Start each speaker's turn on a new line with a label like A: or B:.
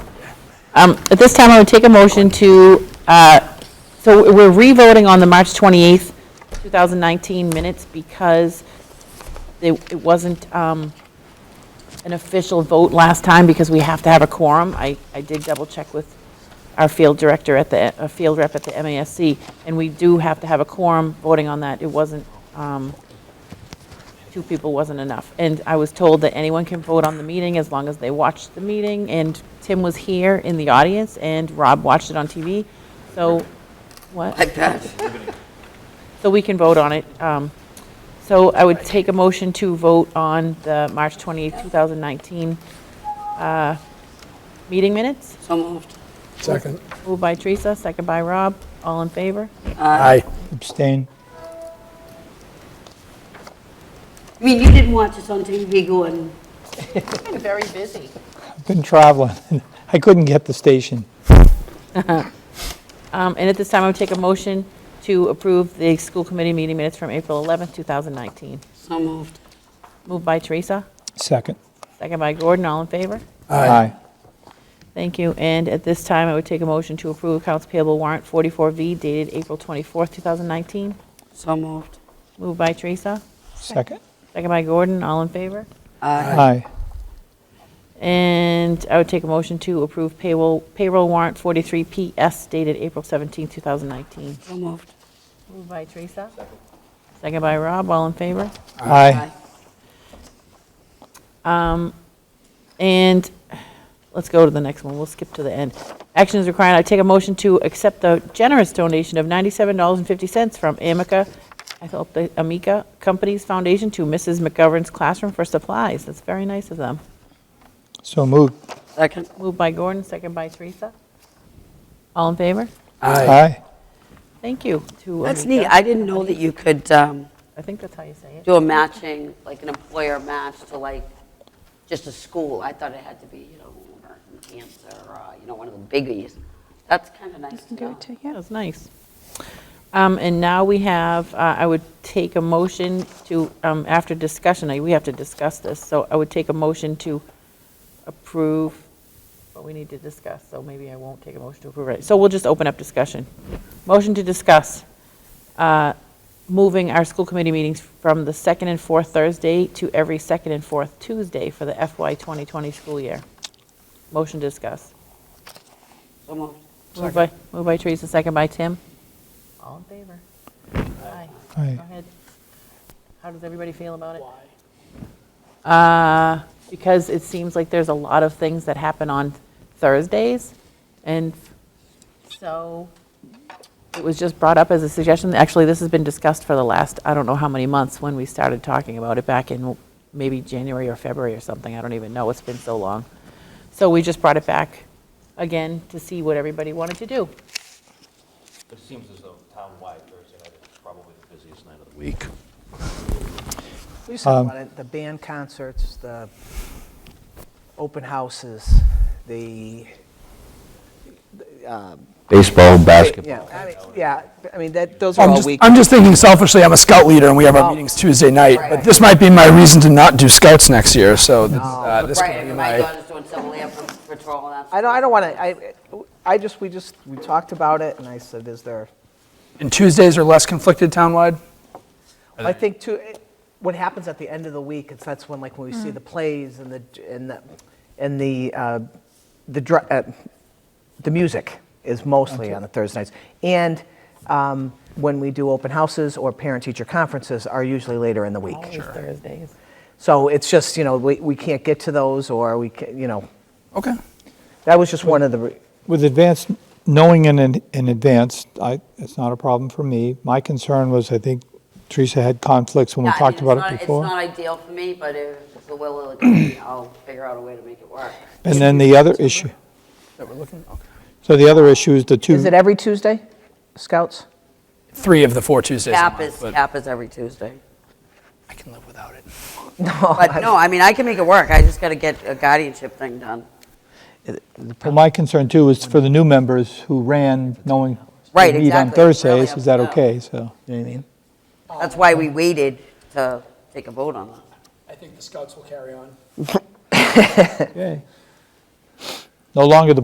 A: Um, At this time, I would take a motion to, uh, so we're revoting on the March 28th, 2019 minutes because it it wasn't um, an official vote last time because we have to have a quorum. I I did double-check with our field director at the, uh, field rep at the MASC, and we do have to have a quorum voting on that. It wasn't, um, two people wasn't enough. And I was told that anyone can vote on the meeting as long as they watched the meeting, and Tim was here in the audience, and Rob watched it on TV, so, what?
B: Like that.
A: So we can vote on it. Um, So I would take a motion to vote on the March 28th, 2019 uh, meeting minutes,
B: So moved.
C: Second.
A: moved by Teresa, second by Rob, all in favor?
C: Aye.
D: Abstain.
B: I mean, you didn't watch us on TV going,
A: Very busy.
D: I've been traveling. I couldn't get the station.
A: Um, And at this time, I would take a motion to approve the school committee meeting minutes from April 11th, 2019.
B: so moved.
A: Moved by Teresa,
D: Second.
A: second by Gordon, all in favor?
D: Aye.
A: Thank you. And at this time, I would take a motion to approve accounts payable warrant 44V dated April 24th, 2019.
B: So moved.
A: Moved by Teresa,
D: Second.
A: second by Gordon, all in favor?
B: Aye.
D: Aye.
A: And I would take a motion to approve payroll, payroll warrant 43PS dated April 17th, 2019.
B: So moved.
A: Moved by Teresa. Second by Rob, all in favor?
D: Aye.
A: And let's go to the next one. We'll skip to the end. Action is required. I take a motion to accept the generous donation of $97.50 from Amica, I thought the Amica Companies Foundation to Mrs. McGovern's classroom for supplies. That's very nice of them.
D: So moved.
B: Second.
A: Moved by Gordon, second by Teresa. All in favor?
D: Aye.
A: Thank you to
B: That's
A: Amica.
B: neat. I didn't know that you could um,
A: I think that's how you say it.
B: do a matching, like an employer match to like, just a school. I thought it had to be, you know, American Cancer, or, uh, you know, one of the biggies. That's kind of nice to know.
A: Yeah, That's nice. Um, And now we have, uh, I would take a motion to, um, after discussion, I- we have to discuss this, so I would take a motion to approve, but we need to discuss, so maybe I won't take a motion to approve it. So we'll just open up discussion. Motion to discuss uh, moving our school committee meetings from the second and fourth Thursday to every second and fourth Tuesday for the FY 2020 school year. Motion to discuss.
B: So moved.
A: Moved by, moved by Teresa, second by Tim. All in favor? Aye.
D: Aye.
A: Go ahead. How does everybody feel about it? Why? Because it seems like there's a lot of things that happen on Thursdays, and so it was just brought up as a suggestion. Actually, this has been discussed for the last, I don't know how many months, when we started talking about it back in maybe January or February or something. I don't even know. It's been so long. So we just brought it back again to see what everybody wanted to do.
E: It seems as though town-wide Thursday night is probably the busiest night of the week.
F: We used to
C: Um,
F: have a lot of the band concerts, the open houses, the, um,
E: Baseball, basketball.
F: yeah, I mean, yeah, I mean, that, those are
C: I'm
F: all
C: just,
F: weekends.
C: I'm just thinking selfishly, I'm a scout leader and we have our
F: Oh.
C: meetings Tuesday night, but
F: Right.
C: this might be my reason to not do scouts next year, so this- uh, this
B: Right,
C: could be
B: and my
C: my,
B: daughter's doing some land patrol and that's.
F: I don't, I don't want to, I, I just, we just, we talked about it, and I said, is there,
C: and Tuesdays are less conflicted townwide?
F: I think too, it- what happens at the end of the week, it's, that's when, like, when we see the plays and the, and the, and the, uh, the, dr- uh, the music is mostly on the Thursday nights. And um, when we do open houses or parent-teacher conferences are usually later in the week.
A: Always Thursdays.
F: So it's just, you know, we, we can't get to those or we, ca- you know,
C: Okay.
F: that was just one of the, re-
D: With advance, knowing in, an- in advance, I, it's not a problem for me. My concern was, I think Teresa had conflicts when we
B: Yeah, I
D: talked
B: mean, it's
D: about
B: not-
D: it
B: It's
D: before.
B: not ideal for me, but if it's the will of the company, I'll figure out a way to make it work.
D: And then the other issue.
C: That we're looking, okay.
D: So the other issue is the two.
F: is it every Tuesday, Scouts?
C: Three of the four Tuesdays a
B: Cap is,
C: month, but
B: cap is every Tuesday.
C: I can live without it.
B: But no, I mean, I can make it work. I just got to get a guardianship thing done.
D: Well, my concern too is for the new members who ran knowing
B: Right,
D: they meet on
B: exactly. Really
D: Thursdays,
B: up
D: is that
B: to them.
D: okay? So,
C: You know what I mean?
B: That's why we waited to take a vote on that.
C: I think the scouts will carry on.
D: okay. No longer the